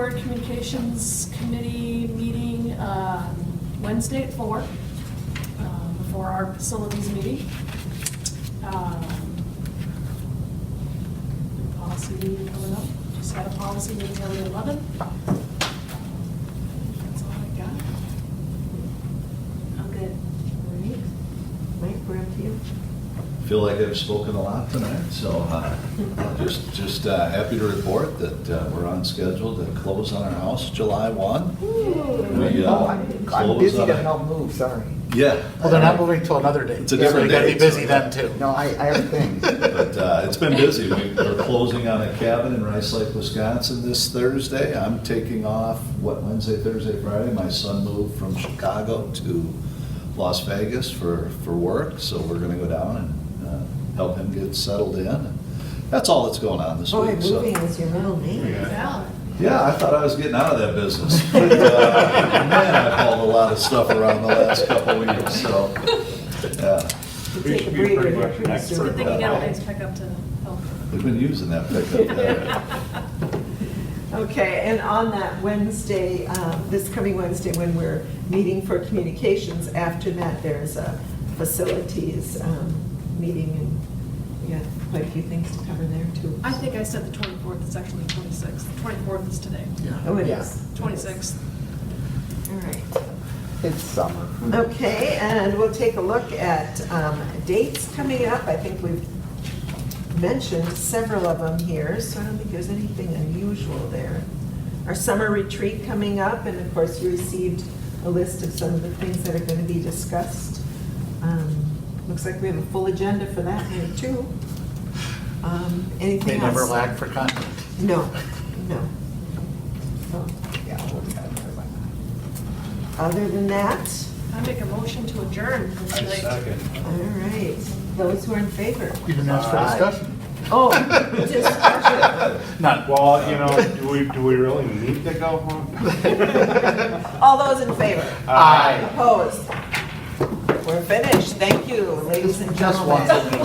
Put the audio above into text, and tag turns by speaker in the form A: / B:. A: Board Communications Committee meeting um, Wednesday at four um, before our facilities meeting. Um, Policy meeting coming up, just had a policy meeting on the eleventh. That's all I got.
B: I'm good. Mike, we're up to you.
C: Feel like I've spoken a lot tonight, so uh, I'm just, just uh, happy to report that uh, we're on schedule to close on our house July 1. We, uh,
D: Oh, I'm I'm
C: close
D: busy
C: on
D: to
C: it.
D: help move, sorry.
C: Yeah.
E: Well, they're not moving till another day.
C: It's a different
E: So
C: day.
E: you gotta be busy then, too.
D: No, I, I have a thing.
C: But uh, it's been busy. We- We're closing on a cabin in Rice Lake, Wisconsin this Thursday. I'm taking off, what, Wednesday, Thursday, Friday? My son moved from Chicago to Las Vegas for, for work, so we're going to go down and uh, help him get settled in. That's all that's going on this
B: Oh,
C: week. so-
B: moving is your middle name.
A: Yeah.
C: Yeah, I thought I was getting out of that business. But, uh, man, I've hauled a lot of stuff around the last couple weeks, so. yeah.
B: You
F: We
B: take a
F: should be
B: breather
F: pretty
B: there
F: much
B: pretty
F: an expert.
A: Good
B: soon.
A: thing you got a nice pickup to help.
C: We've been using that pickup uh, there.
B: Okay, and on that Wednesday, um, this coming Wednesday, when we're meeting for communications, after that, there's a facilities um, meeting, and we got quite a few things to cover there, too.
A: I think I said the twenty-fourth, it's actually the twenty-sixth. The twenty-fourth is today.
B: Oh, it
D: Yeah.
B: is.
A: Twenty-sixth.
B: All right.
D: It's summer.
B: Okay, and we'll take a look at um, dates coming up. I think we've mentioned several of them here, so I don't think there's anything unusual there. Our summer retreat coming up, and of course, you received a list of some of the things that are going to be discussed. Um, Looks like we have a full agenda for that here, too. Um, Anything
E: They
B: else?
E: never lack for content.
B: No, no. Oh, So,
D: Yeah, we'll be out of there by then.
B: Other than that,
A: I make a motion to adjourn for tonight.
B: all right, those who are in favor?
E: You didn't ask for
F: Aye.
E: discussion.
B: Oh, discussion.
E: None.
F: Well, you know, do we, do we really need to go home? Uh,
B: All those in favor?
E: Aye.
B: Opposed? We're finished. Thank you, ladies and
E: Just
B: gentlemen.
E: one.